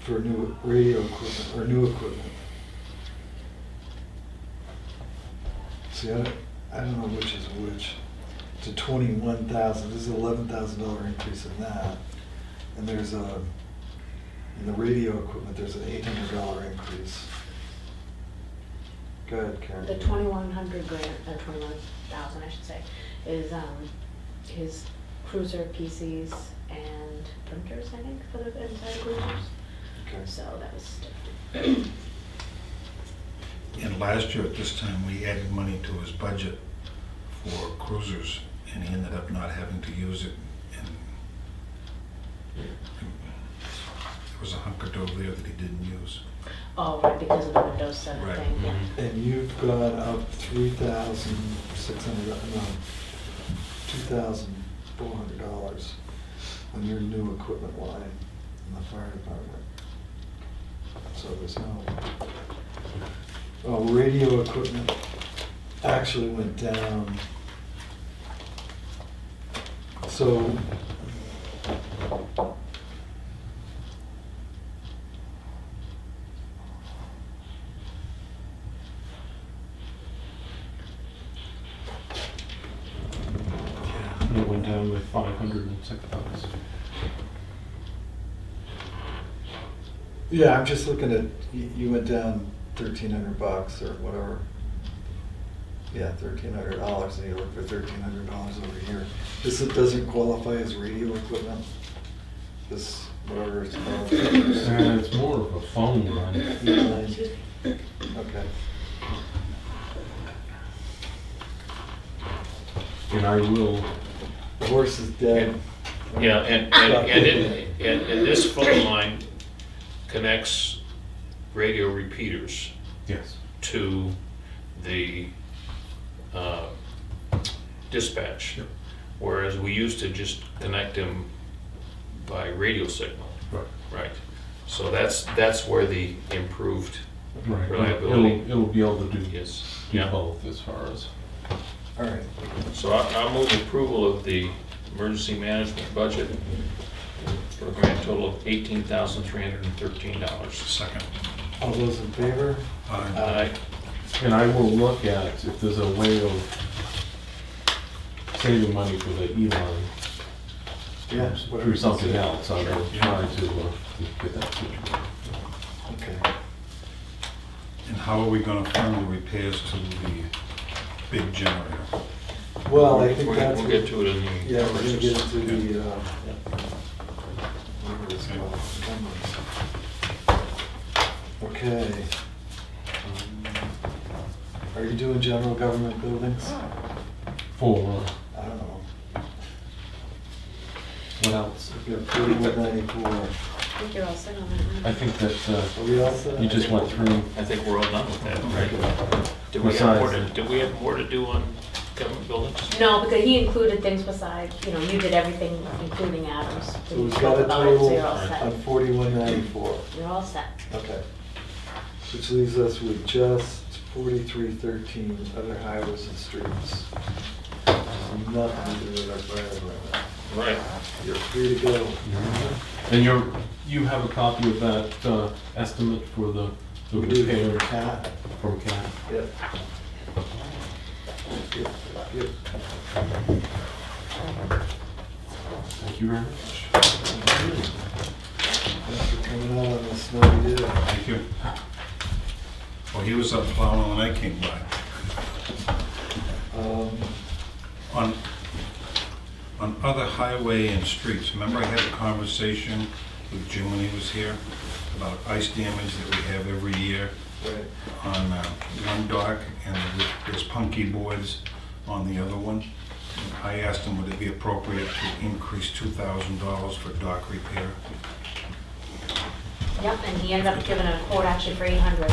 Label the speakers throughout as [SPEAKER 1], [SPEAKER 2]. [SPEAKER 1] for new radio equipment or new equipment. See, I don't, I don't know which is which. It's a twenty-one thousand, this is eleven thousand dollar increase in that. And there's a, in the radio equipment, there's an eight hundred dollar increase. Go ahead, Karen.
[SPEAKER 2] The twenty-one hundred grand, or twenty-one thousand, I should say, is, um, his cruiser PCs and printers, I think, for the inside cruisers.
[SPEAKER 1] Okay.
[SPEAKER 2] So that was stuff.
[SPEAKER 3] And last year at this time, we added money to his budget for cruisers, and he ended up not having to use it. And There was a hunk of dough there that he didn't use.
[SPEAKER 2] Oh, right, because of the Windows seven
[SPEAKER 3] Right.
[SPEAKER 2] thing, yeah.
[SPEAKER 1] And you've gone up three thousand six hundred, no, two thousand four hundred dollars on your new equipment line in the fire department. So there's no, oh, radio equipment actually went down. So.
[SPEAKER 4] And it went down by five hundred and six bucks.
[SPEAKER 1] Yeah, I'm just looking at, you, you went down thirteen hundred bucks or whatever. Yeah, thirteen hundred dollars, and you look for thirteen hundred dollars over here. This is- doesn't qualify as radio equipment? This, whatever it's
[SPEAKER 5] Uh,
[SPEAKER 4] And
[SPEAKER 1] called.
[SPEAKER 4] it's more of a phone line.
[SPEAKER 1] Excuse me. Okay,
[SPEAKER 4] And I will,
[SPEAKER 1] the horse is dead.
[SPEAKER 5] Yeah, and, and, and it, and, and this phone line connects radio repeaters
[SPEAKER 4] yes,
[SPEAKER 5] to the, uh, dispatch.
[SPEAKER 4] Yep.
[SPEAKER 5] Whereas we used to just connect them by radio signal,
[SPEAKER 4] right,
[SPEAKER 5] right? So that's, that's where the improved
[SPEAKER 4] right.
[SPEAKER 5] Reliability.
[SPEAKER 4] It'll, it'll be able to do,
[SPEAKER 5] is.
[SPEAKER 4] do
[SPEAKER 5] Yeah,
[SPEAKER 4] both as far as,
[SPEAKER 1] All right,
[SPEAKER 5] so I, I move approval of the emergency management budget for a grand total of eighteen thousand three hundred and thirteen dollars.
[SPEAKER 3] Second,
[SPEAKER 1] all those in favor?
[SPEAKER 3] uh,
[SPEAKER 5] Aye.
[SPEAKER 4] and I will look at if there's a way of saving money for the E-line
[SPEAKER 1] Yeah. whatever
[SPEAKER 4] through
[SPEAKER 1] you
[SPEAKER 4] something
[SPEAKER 1] say.
[SPEAKER 4] else. I will try to uh, get that situated.
[SPEAKER 1] Okay,
[SPEAKER 3] and how are we gonna fund the repairs to the big generator?
[SPEAKER 1] well, I think
[SPEAKER 5] We'll
[SPEAKER 1] that's.
[SPEAKER 5] we'll
[SPEAKER 1] what-
[SPEAKER 5] get to it in the.
[SPEAKER 1] Yeah, we're gonna get into
[SPEAKER 3] Yeah.
[SPEAKER 1] the, uh, whatever it's called, numbers. Okay. Um, Are you doing general government buildings?
[SPEAKER 4] For, uh,
[SPEAKER 1] I don't know.
[SPEAKER 4] what else?
[SPEAKER 1] We've got forty-one ninety-four.
[SPEAKER 2] I think you're all set on that
[SPEAKER 4] I
[SPEAKER 2] one.
[SPEAKER 4] think that
[SPEAKER 1] Are
[SPEAKER 4] uh,
[SPEAKER 1] we all set?
[SPEAKER 4] you just went through,
[SPEAKER 5] I think we're all done with that, right?
[SPEAKER 1] Okay.
[SPEAKER 5] Do we have more to,
[SPEAKER 4] Besides-
[SPEAKER 5] do we have more to do on government buildings?
[SPEAKER 2] No, because he included things besides, you know, you did everything, including Adams.
[SPEAKER 1] So we've
[SPEAKER 2] spoke
[SPEAKER 1] got uh, a
[SPEAKER 2] about it, so
[SPEAKER 1] total
[SPEAKER 2] You're all
[SPEAKER 1] on
[SPEAKER 2] set.
[SPEAKER 1] forty-one ninety-four.
[SPEAKER 2] You're all set.
[SPEAKER 1] Okay. Which leaves us with just forty-three thirteen, other highways and streets. Nothing to do with our fire department.
[SPEAKER 5] Right.
[SPEAKER 1] You're free to go.
[SPEAKER 4] and you're, you have a copy of that uh, estimate for the the
[SPEAKER 1] We do have
[SPEAKER 4] repair
[SPEAKER 1] a cat.
[SPEAKER 4] from CAT?
[SPEAKER 1] Yep. Yep, yep.
[SPEAKER 4] Thank you very much.
[SPEAKER 1] Thanks for coming out on the snowy day.
[SPEAKER 3] Thank you. Well, he was up plowing when I came by.
[SPEAKER 1] Um,
[SPEAKER 3] On, on other highway and streets, remember I had a conversation with Jim when he was here about ice damage that we have every year
[SPEAKER 1] Right,
[SPEAKER 3] on uh, one dock and there's punky boards on the other one. I asked him would it be appropriate to increase two thousand dollars for dock repair?
[SPEAKER 2] Yep, and he ended up giving a quote actually for eight hundred.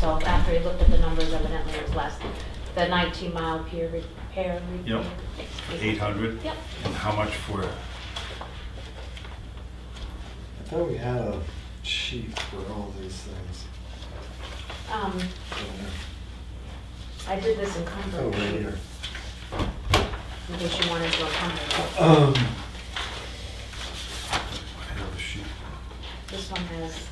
[SPEAKER 2] So after he looked at the numbers, evidently it was less. The nineteen mile pier repair.
[SPEAKER 3] Yep. Eight hundred?
[SPEAKER 2] Yep,
[SPEAKER 3] And how much for,
[SPEAKER 1] I thought we had a sheet for all these things.
[SPEAKER 2] um, I did this in Concord.
[SPEAKER 1] Oh, right here.
[SPEAKER 2] In case you wanted to encumber.
[SPEAKER 1] Um,
[SPEAKER 3] I have a sheet.
[SPEAKER 2] This one has